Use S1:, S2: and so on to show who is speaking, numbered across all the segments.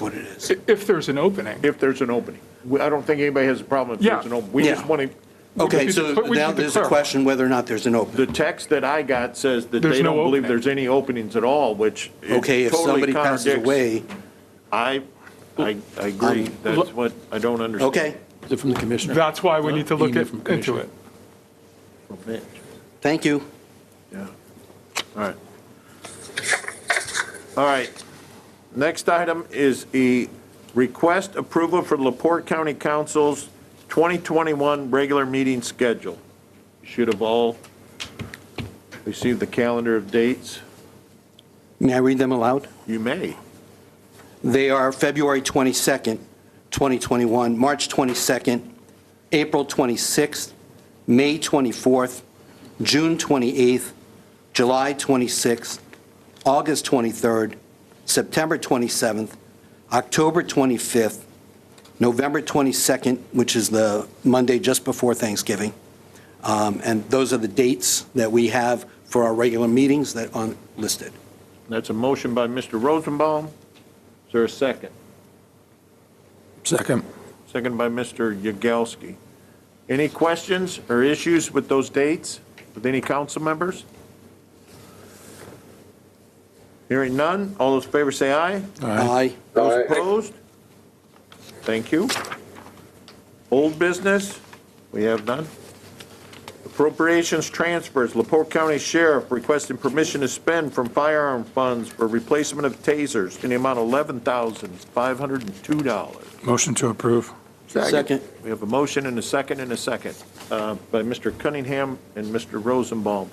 S1: what it is.
S2: I- If there's an opening.
S3: if there's an opening. We- I don't think anybody has a problem if there's
S2: Yeah.
S3: an opening. We just
S1: Yeah.
S3: want to,
S1: Okay,
S2: just
S1: so
S2: need to- we
S1: now
S2: need to
S1: there's a
S2: clarify.
S1: question whether or not there's an open.
S3: the text that I got says that
S2: There's
S3: they
S2: no
S3: don't believe
S2: opening.
S3: there's any openings at all, which it
S1: Okay, if somebody
S3: totally
S1: passes
S3: contradicts.
S1: away,
S3: I, I, I agree.
S1: Um,
S3: That's what I don't understand.
S1: okay,
S4: Is it from the commissioner?
S2: That's why we need to look
S4: Email
S2: at-
S4: from
S2: into
S4: commissioner.
S2: it.
S3: Okay.
S1: thank you.
S3: Yeah, all right. All right, next item is a request approval for Laporte County Council's 2021 regular meeting schedule. Should have all received the calendar of dates.
S1: May I read them aloud?
S3: You may.
S1: They are February 22nd, 2021, March 22nd, April 26th, May 24th, June 28th, July 26th, August 23rd, September 27th, October 25th, November 22nd, which is the Monday just before Thanksgiving. Um, And those are the dates that we have for our regular meetings that are listed.
S3: That's a motion by Mr. Rosenbaum. Is there a second?
S4: Second.
S3: Second by Mr. Yagowski. Any questions or issues with those dates with any council members? Hearing none, all those in favor say aye.
S1: Aye.
S3: Those opposed? Thank you. Old business, we have none. Appropriations transfers, Laporte County Sheriff requesting permission to spend from firearm funds for replacement of tasers in the amount of $11,502.
S4: Motion to approve.
S1: Second.
S3: We have a motion and a second and a second uh, by Mr. Cunningham and Mr. Rosenbaum.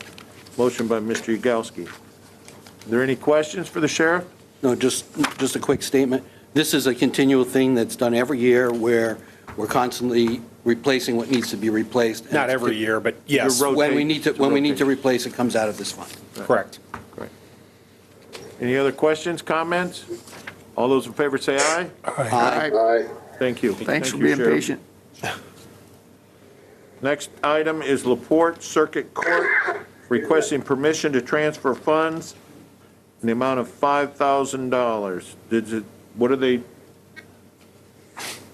S3: Motion by Mr. Yagowski. Are there any questions for the sheriff?
S1: No, just, just a quick statement. This is a continual thing that's done every year where we're constantly replacing what needs to be replaced.
S5: Not every year, but yes,
S3: You're
S1: When we
S3: Rotate.
S1: need to, when we need to replace, it comes out of this fund.
S5: correct.
S3: Any other questions, comments? All those in favor say aye.
S1: Aye.
S3: Thank you.
S6: Thanks for
S3: Thank you,
S6: being
S3: Sheriff.
S6: patient.
S3: Next item is Laporte Circuit Court requesting permission to transfer funds in the amount of $5,000. Did it, what are they,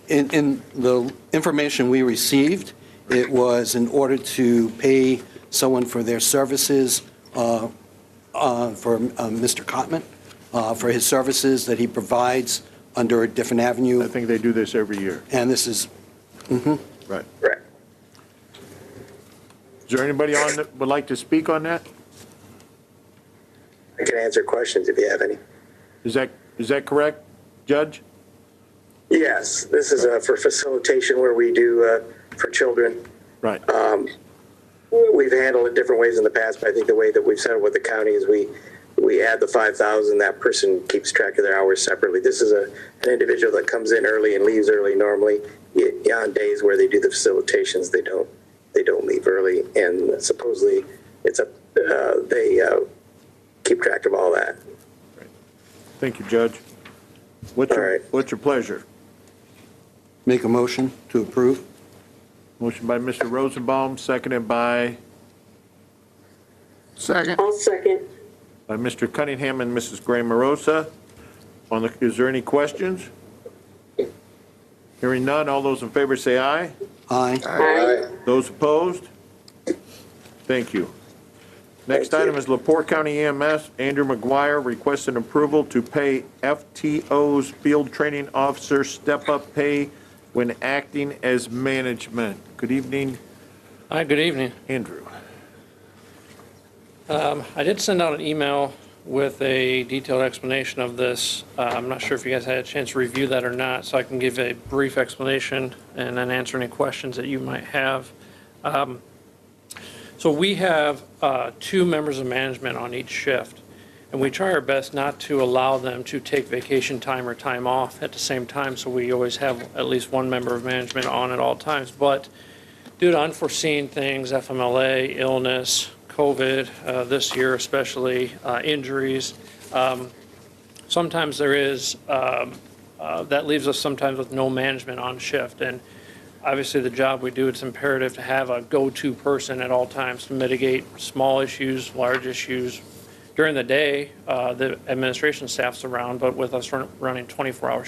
S1: In, in the information we received, it was in order to pay someone for their services, uh, uh, for uh, Mr. Cotman, uh, for his services that he provides under a different
S3: I
S1: avenue,
S3: think they do this every year.
S1: and this is
S3: Right. Right. Is there anybody on that would like to speak on that?
S7: I can answer questions if you have any.
S3: Is that, is that correct, Judge?
S7: Yes, this is uh, for facilitation where we do uh, for children.
S3: Right.
S7: We've handled it different ways in the past, but I think the way that we've settled with the county is we we add the five thousand. That person keeps track of their hours separately. This is a an individual that comes in early and leaves early. Normally, Y- on days where they do the facilitations, they don't they don't leave early, and supposedly it's a uh, they uh, keep track of all that.
S3: Thank you, Judge. What's
S7: All
S3: your,
S7: right.
S3: what's your pleasure?
S1: make a motion to approve.
S3: Motion by Mr. Rosenbaum, seconded by,
S6: Second,
S8: I'll second.
S3: by Mr. Cunningham and Mrs. Gray Morosa. On the, is there any questions? Hearing none, all those in favor say aye.
S1: Aye.
S8: Aye.
S3: Those opposed? Thank you. Next
S7: Thank you.
S3: item is Lepore County EMS, Andrew McGuire requesting approval to pay FTO's field training officer step-up pay when acting as management. Good evening,
S9: Hi, good evening.
S3: Andrew.
S9: I did send out an email with a detailed explanation of this. Uh, I'm not sure if you guys had a chance to review that or not, so I can give a brief explanation and then answer any questions that you might have. Um, So we have uh, two members of management on each shift, and we try our best not to allow them to take vacation time or time off at the same time, so we always have at least one member of management on at all times. But due to unforeseen things, FMLA, illness, COVID, uh, this year especially, uh, injuries. um, Sometimes there is, um, uh, that leaves us sometimes with no management on shift. And obviously, the job we do, it's imperative to have a go-to person at all times to mitigate small issues, large issues. During the day, uh, the administration staff's around, but with us run- running 24-hour